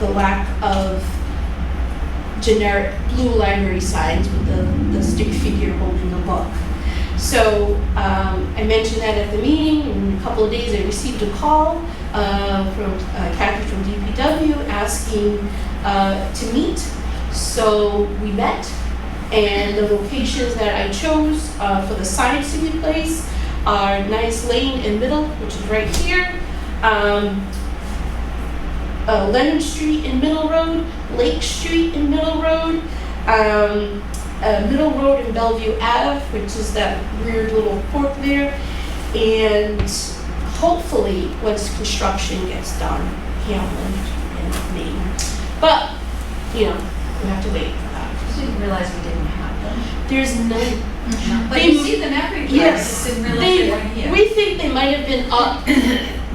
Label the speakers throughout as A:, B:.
A: the lack of generic blue library signs with the, the stick figure holding a book. So um, I mentioned that at the meeting. In a couple of days, I received a call uh, from uh, Kathy from DPW asking uh, to meet. So we met, and the locations that I chose uh, for the signs to be placed are Nice Lane and Middle, which is right here. Um, uh, Leonard Street and Middle Road, Lake Street and Middle Road, um, uh, Middle Road and Bellevue Ave, which is that weird little fork there. And hopefully, once construction gets done, Hamlin and Maine. But, you know, we have to wait for that.
B: Just didn't realize we didn't have
A: There's no
B: them. But
A: They-
B: you see them everywhere, I
A: yes,
B: just didn't realize
A: They-
B: they weren't here.
A: we think they might have been up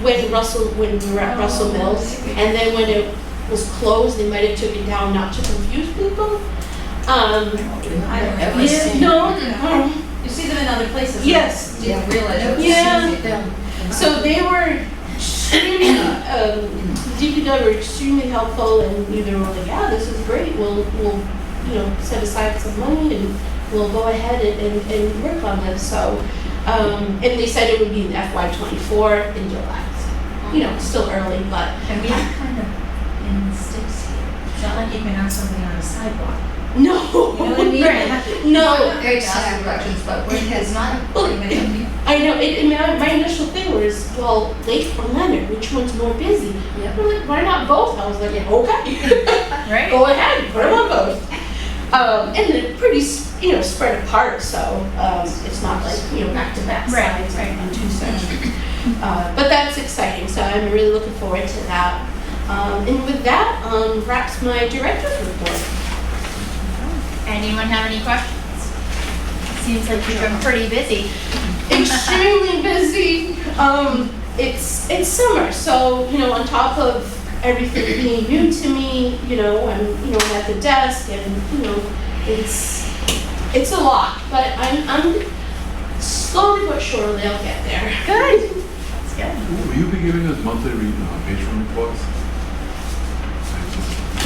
A: when Russell, when we were at Russell
B: Oh,
A: Mills,
B: maybe.
A: and then when it was closed, they might have took it down not to confuse people. Um,
B: I don't
C: Ever
B: realize.
C: seen-
A: no,
B: You see them in other places.
A: yes.
B: Didn't realize.
A: Yeah.
C: So
A: So they were extremely, um, DPW were extremely helpful and we- they were like, yeah, this is great, we'll, we'll, you know, set aside some money and we'll go ahead and, and, and work on this, so. Um, and they said it would be in FY twenty-four in July, so, you know, it's still early, but,
B: And we have kind of in sticks here. It's not like you can have something on a sidewalk.
A: no.
B: You know what I mean?
A: No,
B: I'm
C: Great
B: not asking questions, but we it's not.
A: Well,
B: even in-
A: I know, it, and my, my initial thing was, well, Lake or Leonard, which one's more busy?
C: Yep.
A: They're like, why not both? I was like, okay.
B: Right?
A: go ahead, put them on both. Um, and they're pretty, s- you know, spread apart, so, um, it's not like, you know, back to back
B: Right,
A: sides
B: right.
A: and two sections. Uh, but that's exciting, so I'm really looking forward to that. Um, and with that, um, wraps my director's report.
D: Anyone have any questions? Seems like you've been pretty busy.
A: extremely busy. Um, it's it's summer, so you know, on top of everything being new to me, you know, I'm you know I'm at the desk, and you know, it's it's a lot, but I'm I'm slowly but surely I'll get there. Good.
D: That's good.
E: Will you be giving us monthly re- uh, patron reports?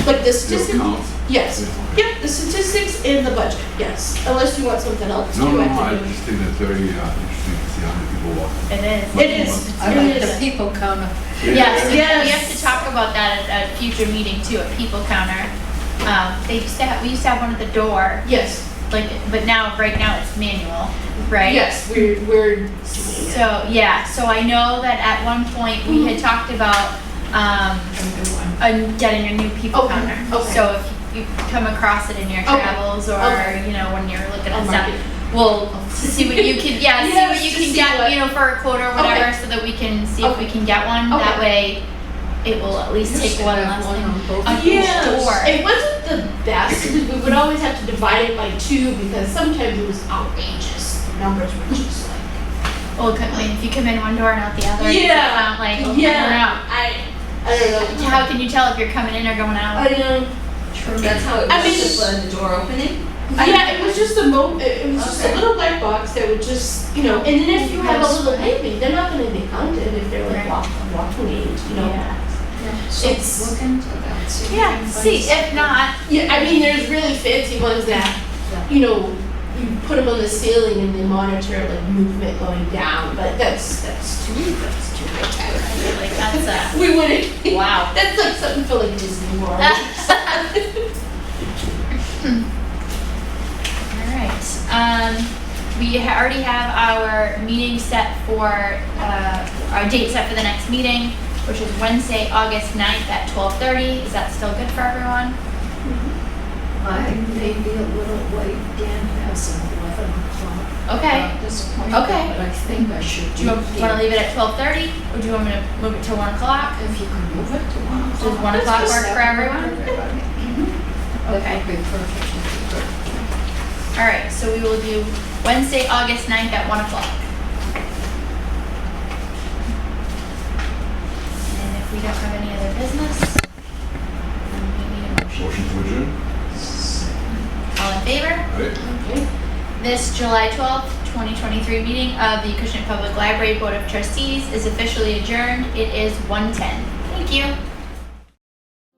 A: Like the
E: It'll
A: statistics.
E: count.
A: Yes. Yep. The statistics in the budget. Yes. Unless you want something else.
E: No,
A: too,
E: no,
A: I
E: no, I
A: can do-
E: just think that's very uh, interesting to see how many people walk.
D: It is.
A: It is.
C: I
A: it
C: like
A: is.
C: the people counter.
D: Yes, we we have
A: Yes.
D: to talk about that at a future meeting too, a people counter. Um, they used to have, we used to have one at the door,
A: Yes.
D: like, but now, right now it's manual, right?
A: Yes. We're we're doing it.
D: So, yeah, so I know that at one point we
A: Mm-hmm.
D: had talked about, um, a- getting a new people
A: Okay,
D: counter.
A: okay.
D: So if you come across it in your
A: Okay,
D: travels or,
A: okay.
D: you know, when you're looking
A: I'll
D: at
A: mark
D: stuff,
A: it.
D: Well, to see what you can, yeah, see
A: Yes,
D: what you
A: to
D: can
A: see
D: get,
A: what-
D: you know, for a quote or whatever,
A: Okay.
D: so that we can see if we can get one. That way, it will at least take one less thing.
C: thing.
D: Uh,
A: Yeah,
D: Sure.
A: it wasn't the best, because we would always have to divide it by two, because sometimes it was outrageous, the numbers were just like.
D: Well, it could- like, if you come in one door and out the other, it's
A: Yeah,
D: not like, oh, I don't know.
A: Yeah, I, I don't know.
D: How can you tell if you're coming in or going
A: I um,
D: out?
A: know,
B: True, that's how it
A: I
B: was
A: mean-
B: just uh, the door opening.
A: yeah, it was just a mo, it it was just a
B: Okay.
A: little black box that would just, you know, and then if you have a little baby, they're not gonna be counted if they're like
D: Right.
A: walk, walking age, you know?
D: Yeah.
A: It's-
C: Look into that, see. if you
D: Yeah,
C: can find
D: see, if not,
A: Yeah, I mean, there's really fancy ones that, you know, you put them on the ceiling and they monitor like movement going down, but that's, that's too, that's too much. I don't
D: I feel like that's
A: We wouldn't.
D: a, wow.
A: That's like something for like Disney World.
D: Alright, um, we ha- already have our meeting set for, uh, our date set for the next meeting, which is Wednesday, August 9th at twelve thirty. Is that still good for everyone?
C: I may be a little late, Dan has an eleven o'clock.
D: Okay.
C: Disappointed,
B: Uh,
D: Okay.
C: but I think I should
D: Do
C: do.
D: you want to
C: it.
D: leave it at twelve thirty, or do you want me to move it to one o'clock?
C: If you can move it to one o'clock.
D: Does one o'clock work for everyone?
C: That would be perfect.
D: Alright, so we will do Wednesday, August 9th at one o'clock. And if we don't have any other business, then we need a motion.
E: Motion to adjourn?
D: All in favor?
E: Right.
D: This July 12th, 2023 meeting of the Acushnet Public Library Board of Trustees is officially adjourned. It is 1:10. Thank you.